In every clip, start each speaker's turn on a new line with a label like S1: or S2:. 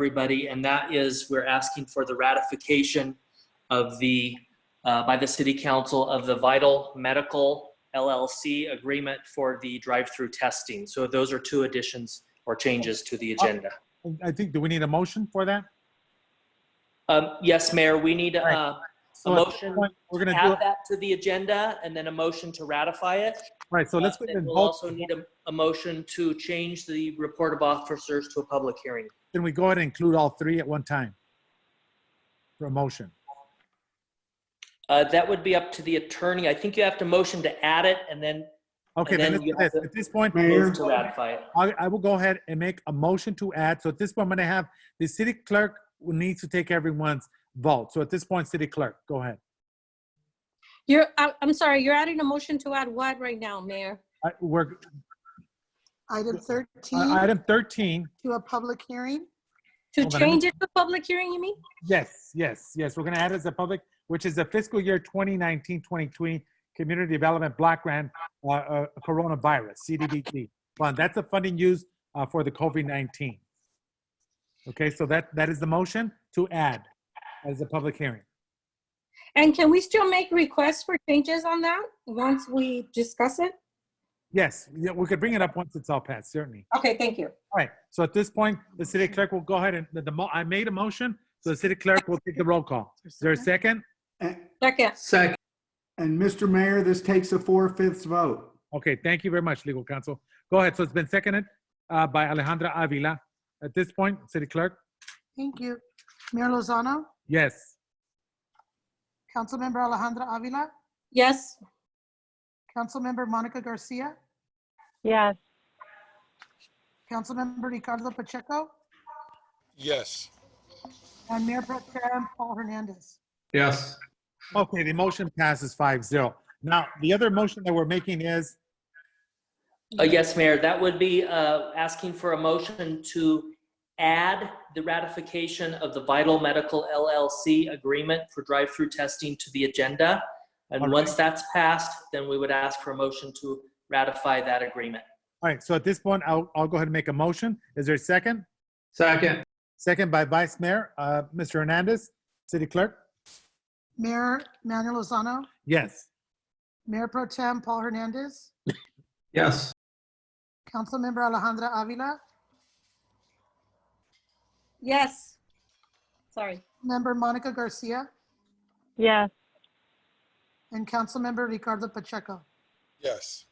S1: everybody, and that is we're asking for the ratification of the, uh, by the City Council of the Vital Medical LLC agreement for the drive-through testing. So those are two additions or changes to the agenda.
S2: I think, do we need a motion for that?
S1: Um, Yes, Mayor, we need uh, a
S2: So at this
S1: motion,
S2: point, We're
S1: to
S2: gonna do,
S1: add
S2: it.
S1: that to the agenda, and then a motion to ratify it.
S2: right, so let's go
S1: Uh,
S2: ahead and
S1: We'll
S2: vote.
S1: also need a, a motion to change the report of officers to a public hearing.
S2: Can we go ahead and include all three at one time? For a motion.
S1: Uh, that would be up to the attorney. I think you have to motion to add it and then
S2: Okay,
S1: And then
S2: then let's
S1: you
S2: do
S1: have
S2: this.
S1: to-
S2: at this point,
S1: move to ratify it.
S2: I, I will go ahead and make a motion to add. So at this point, I'm going to have the city clerk will need to take everyone's vote. So at this point, city clerk, go ahead.
S3: You're, I- I'm sorry, you're adding a motion to add what right now, Mayor?
S2: I, we're, uh,
S4: Item 13
S2: item 13.
S4: to a public hearing.
S3: To
S2: Hold on, let me-
S3: change it to public hearing, you mean?
S2: Yes, yes, yes. We're going to add as a public, which is the fiscal year 2019, 2020 Community Development Block Grant, uh, uh, Coronavirus, CDBG Fund. That's the funding used, uh, for the COVID-19. Okay, so that, that is the motion to add as a public hearing.
S3: And can we still make requests for changes on that once we discuss it?
S2: Yes, yeah, we could bring it up once it's all passed, certainly.
S3: Okay, thank you.
S2: All right, so at this point, the city clerk will go ahead and, the, the mo- I made a motion, so the city clerk will take the roll call. Is there a second?
S5: And,
S3: Second,
S1: Second.
S5: and Mr. Mayor, this takes a four-fifths vote.
S2: Okay, thank you very much, legal counsel. Go ahead, so it's been seconded uh, by Alejandra Avila. At this point, city clerk,
S4: Thank you. Mayor Lozano,
S2: yes.
S4: Councilmember Alejandra Avila,
S3: yes,
S4: Councilmember Monica Garcia,
S6: Yes,
S4: Councilmember Ricardo Pacheco,
S7: Yes.
S4: and Mayor Pro Tem Paul Hernandez.
S7: Yes.
S2: Okay, the motion passes five zero. Now, the other motion that we're making is,
S1: Uh, yes, Mayor, that would be, uh, asking for a motion to add the ratification of the Vital Medical LLC agreement for drive-through testing to the agenda.
S2: All
S1: And
S2: right.
S1: once that's passed, then we would ask for a motion to ratify that agreement.
S2: all right, so at this point, I'll, I'll go ahead and make a motion. Is there a second?
S7: Second.
S2: Second by Vice Mayor, uh, Mr. Hernandez, city clerk,
S4: Mayor Manuel Lozano,
S2: yes.
S4: Mayor Pro Tem Paul Hernandez,
S7: Yes.
S4: Councilmember Alejandra Avila,
S3: yes. Sorry,
S4: Member Monica Garcia,
S6: yes,
S4: and Councilmember Ricardo Pacheco.
S7: Yes.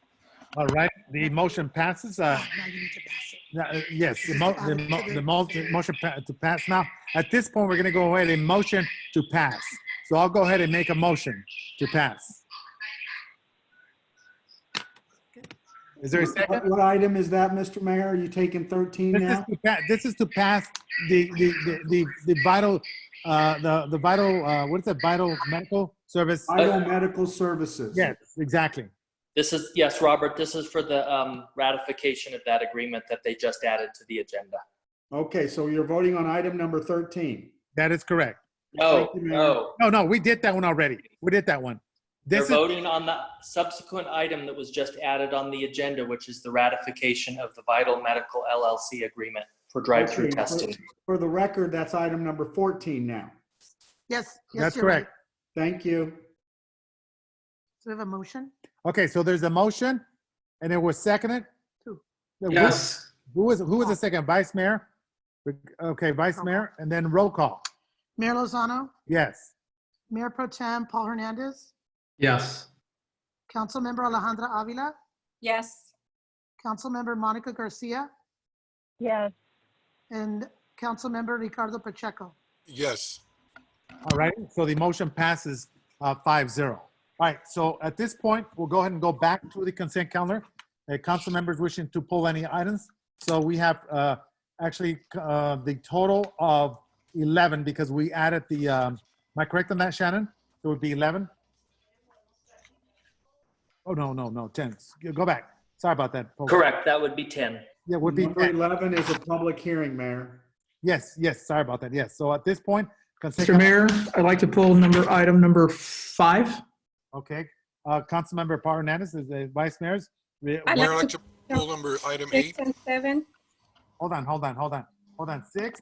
S2: All right, the motion passes. Uh,
S4: Now you need to pass it.
S2: Uh, Yes, the mo- the mo- the mo- the motion pa- to pass. Now, at this point, we're going to go ahead and motion to pass. So I'll go ahead and make a motion to pass. Is there a second?
S5: What what item is that, Mr. Mayor? Are you taking 13
S2: This is
S5: now?
S2: to pa- This is to pass the, the, the- the, the vital, uh, the, the vital, uh, what is it, vital medical service?
S5: Vital medical services.
S2: Yes, exactly.
S1: This is, yes, Robert, this is for the, um, ratification of that agreement that they just added to the agenda.
S5: Okay, so you're voting on item number 13.
S2: That is correct.
S1: No,
S5: Thank you, Mayor.
S1: no.
S2: No, no, we did that one already. We did that one.
S1: They're
S2: This is,
S1: voting on the subsequent item that was just added on the agenda, which is the ratification of the Vital Medical LLC agreement for drive-through
S5: Okay, for-
S1: testing.
S5: For the record, that's item number 14 now.
S4: Yes. yes,
S2: that's
S4: you're right.
S2: correct.
S5: Thank you.
S4: So we have a motion?
S2: Okay, so there's a motion, and it was seconded?
S4: Two.
S2: Who- Who was, who was the second? Vice Mayor? Okay, Vice Mayor, and then roll call.
S4: Mayor Lozano,
S2: Yes.
S4: Mayor Pro Tem Paul Hernandez,
S7: Yes.
S4: Councilmember Alejandra Avila,
S3: yes.
S4: Councilmember Monica Garcia,
S6: yes,
S4: and Councilmember Ricardo Pacheco.
S7: Yes.
S2: All right, so the motion passes uh, 5-0. All right, so at this point, we'll go ahead and go back to the consent calendar. Uh, Council members wishing to pull any items. So we have uh, actually uh, the total of 11 because we added the, um, am I correct on that, Shannon? It would be 11? Oh, no, no, no, 10. Go back. Sorry about that. folks.
S1: Correct, that would be 10.
S2: Yeah, would be
S5: Number
S2: 10.
S5: 11 is a public hearing, Mayor.
S2: Yes, yes, sorry about that. Yes, so at this point, consent.
S8: Mr. Mayor, I'd like to pull number, item number five.
S2: Okay, uh, Councilmember Par Hernandez is the vice mayor's. We-
S3: I
S7: Mayor, I'd
S3: like
S7: like
S3: to-
S7: to pull number item
S3: Six
S7: eight.
S3: and seven,
S2: Hold on, hold on, hold on, hold on. Six